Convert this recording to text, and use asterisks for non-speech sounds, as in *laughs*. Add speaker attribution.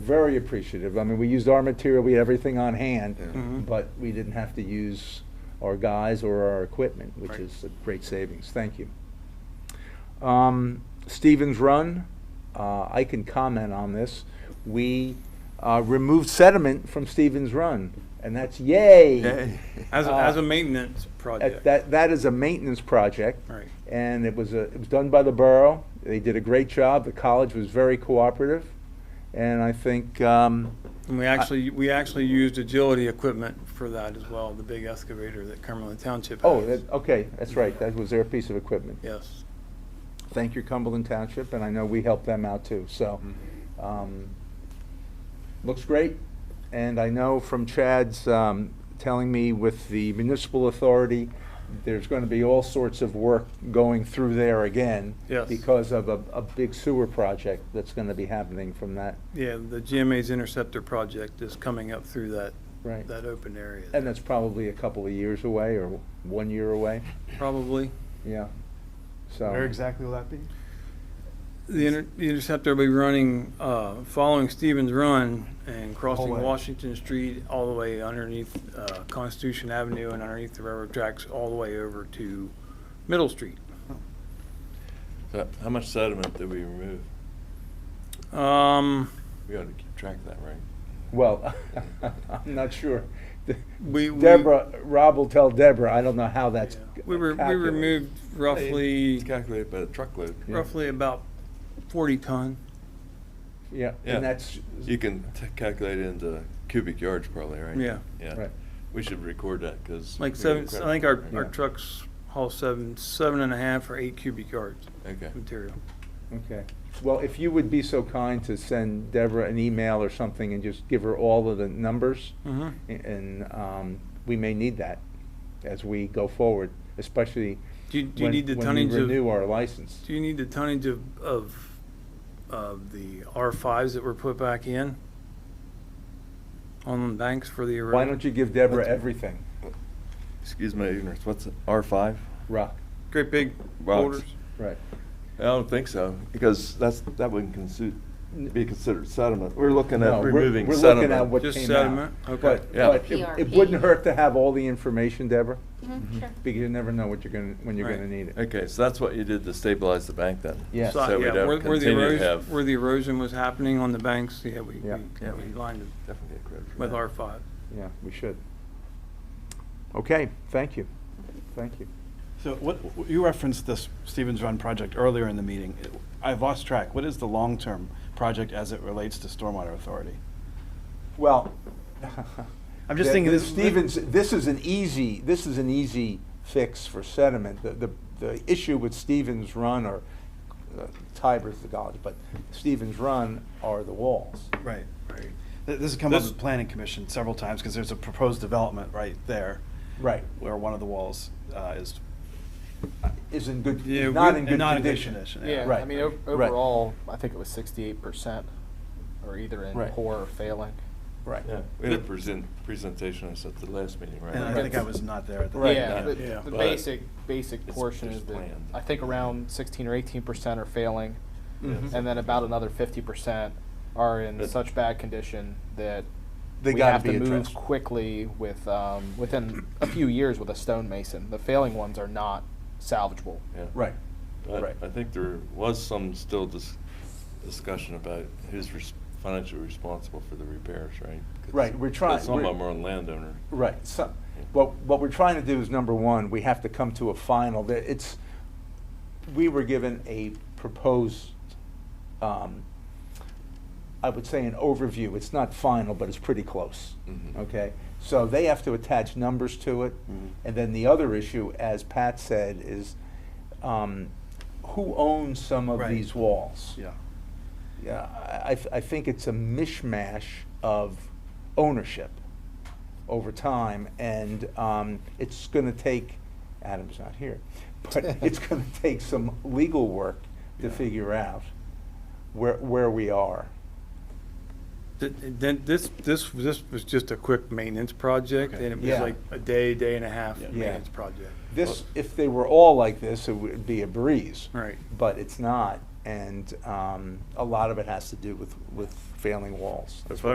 Speaker 1: very appreciative. I mean, we used our material, we had everything on hand,
Speaker 2: Mhm.
Speaker 1: but we didn't have to use our guys or our equipment, which
Speaker 2: Right.
Speaker 1: is a great savings. Thank you. Um, Stevens Run, uh, I can comment on this. We uh, removed sediment from Stevens Run, and that's yay.
Speaker 2: Yay.
Speaker 3: As, a-
Speaker 1: Uh,
Speaker 3: as a maintenance
Speaker 1: That,
Speaker 3: project.
Speaker 1: that- that is a maintenance project.
Speaker 3: Right.
Speaker 1: And it was, a- it was done by the borough. They did a great job. The college was very cooperative. And I think, um,
Speaker 3: And we actually, we actually used agility equipment for that as well, the big excavator that Cumberland Township has.
Speaker 1: oh, that, okay, that's right. That was their piece of equipment.
Speaker 3: Yes.
Speaker 1: Thank you, Cumberland Township, and I know we helped them out too, so.
Speaker 3: Mm-hmm.
Speaker 1: um, Looks great, and I know from Chad's um, telling me with the municipal authority, there's going to be all sorts of work going through there again.
Speaker 3: Yes.
Speaker 1: Because of a, a big sewer project that's going to be happening from that.
Speaker 3: Yeah, the GMA's interceptor project is coming up through that,
Speaker 1: Right.
Speaker 3: that open area.
Speaker 1: And that's probably a couple of years away, or one year away,
Speaker 3: Probably.
Speaker 1: yeah, so.
Speaker 4: Where exactly will that be?
Speaker 3: The inter- the interceptor will be running, uh, following Stevens Run and crossing
Speaker 4: way.
Speaker 3: Washington Street all the way underneath uh, Constitution Avenue and underneath the railroad tracks, all the way over to Middle Street.
Speaker 2: So How much sediment did we remove?
Speaker 3: Um,
Speaker 2: We ought to keep track of that, right?
Speaker 1: Well, *laughs* I'm not sure. De-
Speaker 3: We- we-
Speaker 1: Deborah, Rob will tell Deborah, I don't know how that's.
Speaker 3: yeah. We were, we
Speaker 1: calculated.
Speaker 3: removed roughly,
Speaker 2: It's calculated by the truckload.
Speaker 1: Yeah.
Speaker 3: roughly about forty ton.
Speaker 1: Yeah,
Speaker 2: Yeah.
Speaker 1: and that's.
Speaker 2: You can t- calculate it into cubic yards probably, right?
Speaker 3: Yeah.
Speaker 2: Yeah.
Speaker 1: Right.
Speaker 2: We should record that because.
Speaker 3: Like seven, I think our, our
Speaker 1: Yeah.
Speaker 3: trucks haul seven, seven and a half or eight cubic yards
Speaker 2: Okay.
Speaker 3: material.
Speaker 1: Okay. Well, if you would be so kind to send Deborah an email or something and just give her all of the numbers.
Speaker 3: Mhm.
Speaker 1: a- And, um, we may need that as we go forward, especially.
Speaker 3: Do you- do you
Speaker 1: when-
Speaker 3: need the
Speaker 1: when we
Speaker 3: tonnage of-
Speaker 1: Renew our license.
Speaker 3: Do you need the tonnage of, of, of the R fives that were put back in? On the banks for the erosion?
Speaker 1: Why don't you give Deborah everything,
Speaker 2: Excuse my ignorance, what's R five?
Speaker 1: Rock?
Speaker 3: Great big
Speaker 2: Box.
Speaker 3: boulders.
Speaker 1: Right.
Speaker 2: I don't think so, because that's, that wouldn't consider, be considered sediment. We're looking
Speaker 1: No,
Speaker 2: at
Speaker 1: we're-
Speaker 2: removing
Speaker 1: We're looking at
Speaker 2: sediment.
Speaker 1: what
Speaker 3: Just
Speaker 1: came out.
Speaker 3: sediment? Okay.
Speaker 1: But-
Speaker 2: Yeah.
Speaker 1: But it- it
Speaker 5: PRP.
Speaker 1: wouldn't hurt to have all the information, Deborah,
Speaker 5: Mhm, sure.
Speaker 1: because you never know what you're gonna, when you're
Speaker 3: Right.
Speaker 1: gonna need it.
Speaker 2: Mm-hmm. Okay, so that's what you did to stabilize the bank then?
Speaker 1: Yes.
Speaker 3: So,
Speaker 2: So we
Speaker 3: yeah, where-
Speaker 2: don't
Speaker 3: where the
Speaker 2: continue to
Speaker 3: erosion-
Speaker 2: have.
Speaker 3: Where the erosion was happening on the banks, yeah, we,
Speaker 1: Yeah.
Speaker 3: we
Speaker 2: Yeah,
Speaker 3: we
Speaker 2: we-
Speaker 3: lined it
Speaker 2: Definitely get credit for
Speaker 3: with
Speaker 2: that.
Speaker 3: R five.
Speaker 1: Yeah, we should. Okay, thank you. Thank you.
Speaker 4: So what, you referenced this Stevens Run project earlier in the meeting. I've lost track. What is the long-term project as it relates to Stormwater Authority?
Speaker 2: *laughs*
Speaker 1: Well.
Speaker 4: I'm just
Speaker 1: the-
Speaker 4: thinking
Speaker 1: the
Speaker 4: this-
Speaker 1: Stevens, this is an easy, this is an easy fix for sediment. The, the, the issue with Stevens Run or uh, Tiber's the college, but Stevens Run are the walls.
Speaker 4: Right. Th- This has come up
Speaker 2: This-
Speaker 4: with Planning Commission several times because there's a proposed development right there
Speaker 1: Right.
Speaker 4: where one of the walls uh, is
Speaker 1: Is in good,
Speaker 3: Yeah,
Speaker 1: is not
Speaker 3: we-
Speaker 1: in good
Speaker 4: not in good
Speaker 1: condition.
Speaker 4: condition.
Speaker 6: Yeah,
Speaker 1: Right.
Speaker 6: I mean, o-
Speaker 1: Right.
Speaker 6: overall, I think it was sixty-eight percent are either in
Speaker 1: Right.
Speaker 6: poor or failing.
Speaker 1: Right.
Speaker 2: Yeah, we had a present, presentation on this at the last meeting, right?
Speaker 4: And I
Speaker 6: Right.
Speaker 4: think I was not there at the
Speaker 1: Right.
Speaker 6: Yeah, the,
Speaker 3: Yeah.
Speaker 6: the
Speaker 2: But
Speaker 6: basic, basic
Speaker 2: it's-
Speaker 6: portion
Speaker 2: it's
Speaker 6: is that,
Speaker 2: planned.
Speaker 6: I think around sixteen or eighteen percent are failing,
Speaker 1: Mhm.
Speaker 6: and then about another fifty percent are in
Speaker 2: But-
Speaker 6: such bad condition that
Speaker 1: They
Speaker 6: we
Speaker 1: gotta
Speaker 6: have
Speaker 1: be
Speaker 6: to move
Speaker 1: addressed.
Speaker 6: quickly with, um, within a few years with a stonemason. The failing ones are not salvageable.
Speaker 2: Yeah.
Speaker 1: Right.
Speaker 2: But
Speaker 1: Right.
Speaker 2: I think there was some still dis- discussion about who's res- financially responsible for the repairs, right? 'Cause-
Speaker 1: Right, we're trying-
Speaker 2: 'cause Some of
Speaker 1: we're-
Speaker 2: them are on landowner.
Speaker 1: Right, so,
Speaker 2: Yeah.
Speaker 1: what, what we're trying to do is, number one, we have to come to a final, There- it's, we were given a proposed, um, I would say an overview, it's not final, but it's pretty close,
Speaker 2: Mhm.
Speaker 4: Mm-hmm.
Speaker 1: okay? So they have to attach numbers to it,
Speaker 2: Mhm.
Speaker 1: and then the other issue, as Pat said, is, um, who owns some of
Speaker 4: Right.
Speaker 1: these walls?
Speaker 4: Yeah.
Speaker 1: Yeah, I, I- I think it's a mishmash of ownership over time, and um, it's going to take, Adam's not here, but it's going to take some legal work to
Speaker 4: Yeah.
Speaker 1: figure out where, where we are.
Speaker 3: Th- Then this, this, this was just a quick maintenance project and it was
Speaker 1: Yeah.
Speaker 3: like a day, day and a half
Speaker 4: Yeah.
Speaker 3: maintenance project.
Speaker 1: This, if they were all like this, it would be a breeze.
Speaker 3: Right.
Speaker 1: But it's not, and um, a lot of it has to do with, with
Speaker 7: failing walls.
Speaker 1: That's